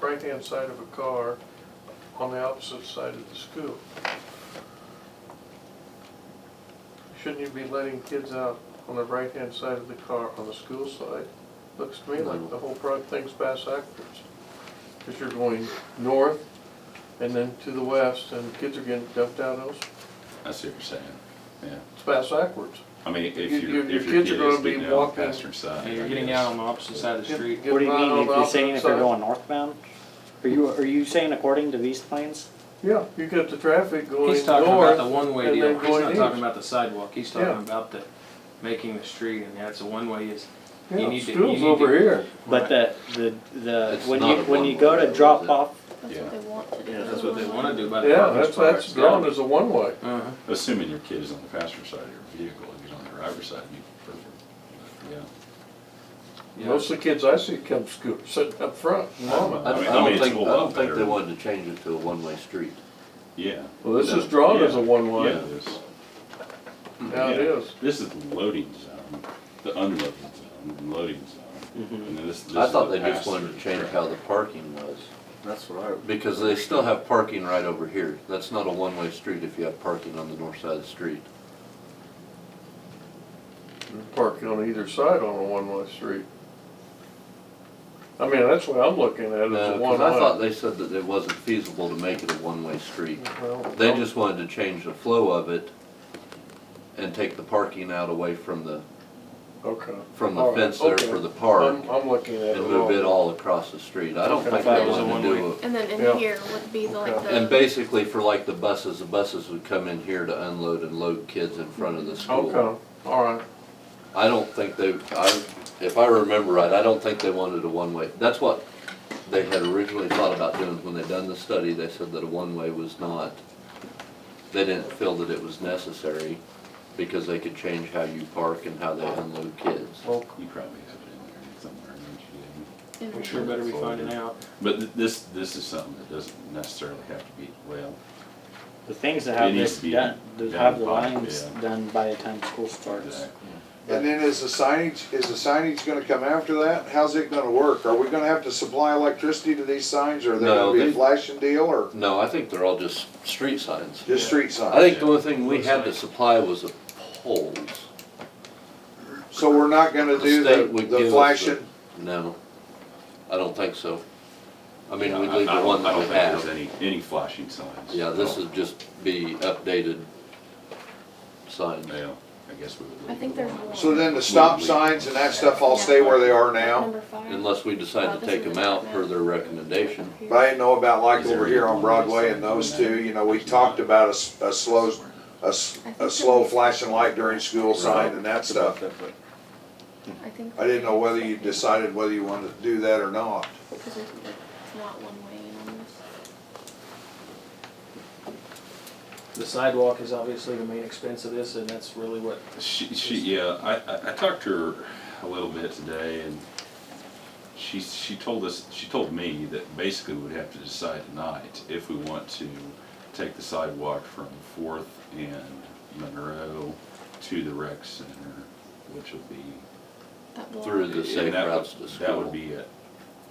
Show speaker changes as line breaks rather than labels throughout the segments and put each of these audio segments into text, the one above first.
right-hand side of a car on the opposite side of the school. Shouldn't you be letting kids out on the right-hand side of the car on the school side? Looks to me like the whole pro- thing's bass backwards. Because you're going north and then to the west, and kids are getting dumped out else.
I see what you're saying, yeah.
It's bass backwards.
I mean, if
You-
your,
you- your
if your
kids
kid
are
is
gonna be
getting out on the
walking-
passenger side.
Yeah,
I
You're getting
guess.
out on the opposite side of the street.
Get-
It
get
What do you
them out on
mean, if
the
you're saying if
opposite
they're
side.
going northbound? Are you, are you saying according to these plans?
Yeah, you get the traffic going north.
He's talking about the one-way
and
deal.
then
He's
going
not
east.
talking about the sidewalk. He's
Yeah.
talking about the, making the street and that's a one-way is. you
Yeah,
need to- you
school's
need
over
to-
here.
Right.
But the, the, the,
It's
when
not
you,
a
when
one-way
you go
road,
to
is
drop
it?
off,
Yeah.
That's what they want to do.
Yeah,
That's what they wanna do by the
Yeah,
parking
that's,
spot.
that's drawn as a one-way.
Uh-huh.
Assuming your kid is on the passenger side of your vehicle, if he's on the driver's side, you'd prefer, but, yeah.
Yeah.
Most of the kids I see come scoot, sitting up front, mom.
I
I
don't,
mean,
I
I mean,
don't
it's
think,
a
I
whole lot
don't think they
better.
wanted to change it to a one-way street.
Yeah,
Well, this is drawn as a
yeah,
one-way.
there's,
Now it
yeah.
is.
This is the loading zone, the unloading zone, and loading zone.
Mm-hmm.
And then this, this
I
is
thought
the
they just wanted to
pass-through
change
traffic.
how the parking was,
That's what I.
because they still have parking right over here. That's not a one-way street if you have parking on the north side of the street.
Parking on either side on a one-way street. I mean, that's what I'm looking at, is
No,
a
'cause I thought
one-way.
they said that it wasn't feasible to make it a one-way street.
Well,
They just wanted to change the flow of it and take the parking out away from the,
Okay.
from
All
the
right,
fence there
okay.
for the park
I'm, I'm looking at it
and move it
wrong.
all across the street. I don't
Okay.
think
That
they
was a
wanted to
one-way.
do a
And then
Yeah.
in here would be the, like
Okay.
the.
And basically for like the buses, the buses would come in here to unload and load kids in front of the school.
Okay, all right.
I don't think they, I, if I remember right, I don't think they wanted a one-way. That's what they had originally thought about doing when they done the study. They said that a one-way was not, they didn't feel that it was necessary because they could change how you park and how they unload kids.
Well,
You probably have it in there somewhere, don't
in-
We sure better be finding out.
you? But th- this, this is something that doesn't necessarily have to be, well,
the things that
It
have
needs
this
to be
done, that
done
have the
by-
lines
yeah.
done by the time school starts.
exactly.
And then is the signage, is the signage gonna come after that? How's it gonna work? Are we gonna have to supply electricity to these signs, or are they
No,
gonna be a
they-
flashing deal, or
No, I think they're all just street signs.
just street signs?
I think the only thing we had to supply was the poles.
So we're not gonna
The
do
state
the,
would
the
give us
flashing,
No, I don't think so. I
I
mean,
I
we'd leave the
don't-
one
I
that
don't
we
think there's
have.
any, any flashing signs.
Yeah, this
No.
would just be updated signs.
Yeah, I guess we would leave.
I think
the
there's
one.
one.
so then the stop signs and that stuff all stay where they are now?
Number five.
Unless we decide to take them out per their recommendation.
Here.
But I didn't know about like
Is there
over here
any
on Broadway and those two, you know, we talked about a, s- a slow, a, s- a slow flashing light during school sign and that stuff.
I think.
I didn't know whether you decided whether you wanted to do that or not.
Because it's it's not one way in on this.
The sidewalk is obviously the main expense of this and that's really what
She, she, yeah, I, I, I talked to her a little bit today and she, she told us, she told me that basically we'd have to decide tonight if we want to take the sidewalk from Fourth and Monroe to the rec center, which would be.
That block.
Through the- safe
and that would-
routes to
That
school.
would be it.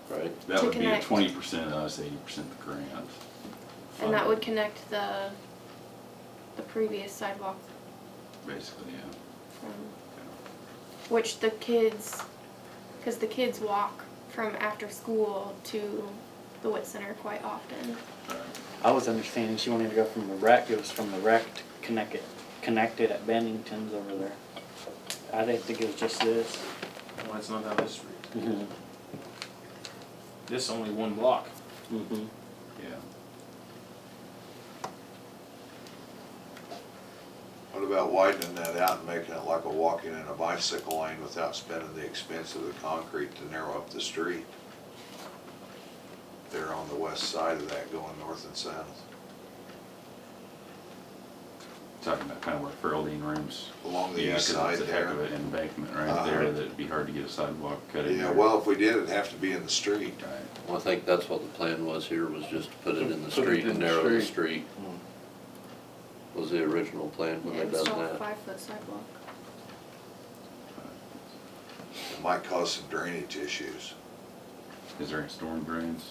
Right.
That
To
would be a
connect.
twenty percent us, eighty percent the grant.
And that would
funding,
connect the, the previous sidewalk
Basically, yeah.
from, which the kids, because the kids walk from after school to the wit center quite often.
I was understanding she wanted to go from the wreck, it was from the wreck to connect it, connected at Bennington's over there. I didn't think it was just this.
Well, that's not how this reads.
Mm-hmm.
This is only one block.
Mm-hmm.
Yeah.
What about widening that out and making it like a walking and a bicycle lane without spending the expense of the concrete to narrow up the street? There on the west side of that going north and south,
talking about kind of where Feraldine rooms.
along the
Yeah,
east
'cause
side
it's a heck of
there.
an embankment
Uh-huh.
right there that'd be hard to get a sidewalk cut in
Yeah,
there.
well, if we did, it'd have to be in the street.
Right.
Well, I think that's what the plan was here, was just to put it in the
Put it
street
in
and
the
narrow the street. Was the original plan when
Yeah,
they done
install a
that.
five foot sidewalk.
It might cause some drainage issues.
Is there any storm drains?